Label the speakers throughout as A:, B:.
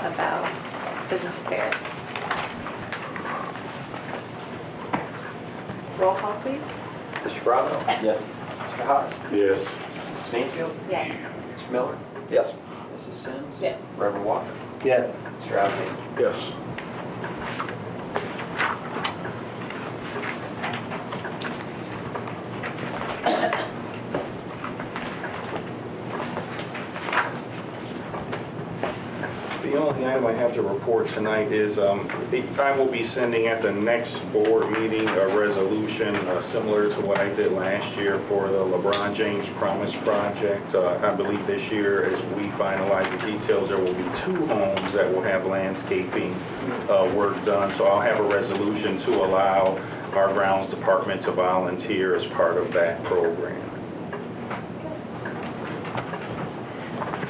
A: about business affairs. Roll call, please.
B: Mr. Bravo?
C: Yes.
B: Mr. Haas?
D: Yes.
B: Mrs. Mansfield?
A: Yes.
B: Mr. Miller?
C: Yes.
B: Mrs. Sims?
A: Yes.
B: Reverend Walker?
C: Yes.
B: Mr. Alexander?
D: Yes.
E: The only thing item I have to report tonight is um, I will be sending at the next board meeting a resolution uh, similar to what I did last year for the LeBron James Promise Project. Uh, I believe this year, as we finalize the details, there will be two homes that will have landscaping uh, work done. So I'll have a resolution to allow our grounds department to volunteer as part of that program.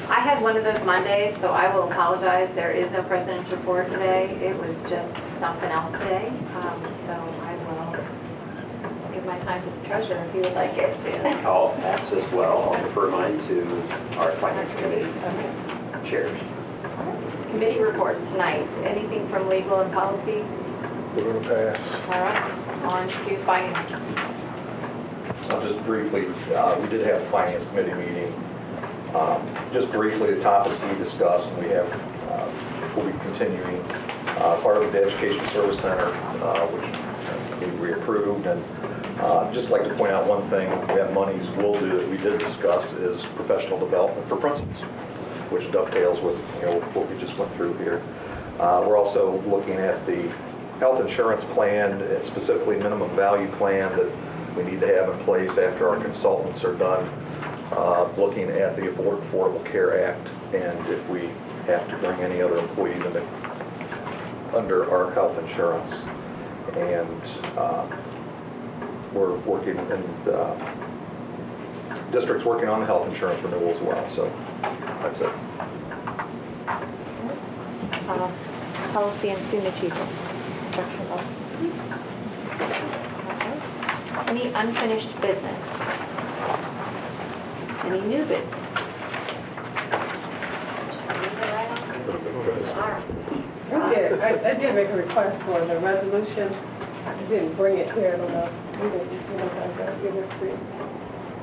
A: I had one of those Mondays, so I will apologize. There is no president's report today. It was just something else today. Um, So I will give my time to the treasurer if you would like it.
B: And I'll pass as well. I'll refer mine to our finance committee
A: Okay.
B: chairs.
A: Committee reports tonight. Anything from legal and policy?
D: We're gonna pass.
A: All right, on to finance.
C: I'll just briefly, uh, we did have a finance committee meeting. Um, Just briefly, the topics we discussed, we have, uh, we'll be continuing, uh, part of the Education Service Center, uh, which we approved, and uh, just like to point out one thing, we have monies we'll do that we did discuss is professional development for principals, which dovetails with, you know, what we just went through here. Uh, We're also looking at the health insurance plan, and specifically minimum value plan that we need to have in place after our consultants are done, uh, looking at the Afford- Affordable Care Act, and if we have to bring any other employees in it under our health insurance. And uh, we're working, and uh, district's working on the health insurance renewal as well, so that's it.
F: Uh, Policy and student achievement, instructional policy. Alright. Any unfinished business?
A: Any new business? Just move it right on. All right.
G: I did, I I did make a request for the resolution. I didn't bring it here, I don't know. We didn't, just, you know, I got give it free.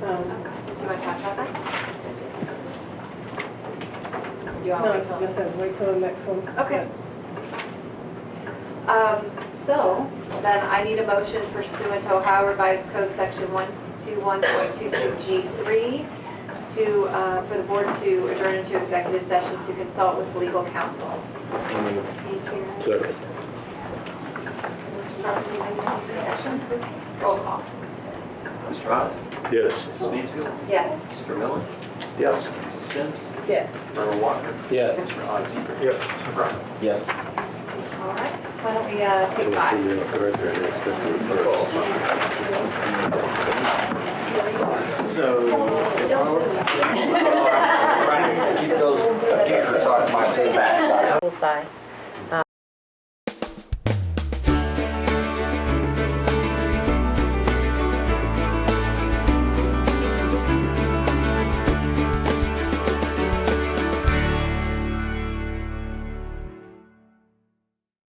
G: Um,
A: Do you want to talk about that? Do you
G: No,
A: want
G: it's
A: to wait
G: just said wait till the next one.
A: Okay. till? Um, So then I need a motion pursuant to Ohio Revised Code Section 121.22G3 to, uh, for the board to adjourn into executive session to consult with legal counsel. Please, Peter.
D: Second.
A: Property management discussion? Roll call.
B: Mr. Haas?
D: Yes.
B: Mrs. Mansfield?
A: Yes.
B: Mr. Miller?
C: Yes?
B: Mrs. Sims?
G: Yes.
B: Reverend Walker?
C: Yes.
B: Mr. Alexander?
D: Yes.
B: Mr. Bravo?
C: Yes.
A: All right, why don't we uh, take five?
C: Keep those
B: Sorry, my back.
C: uh,
F: Full side.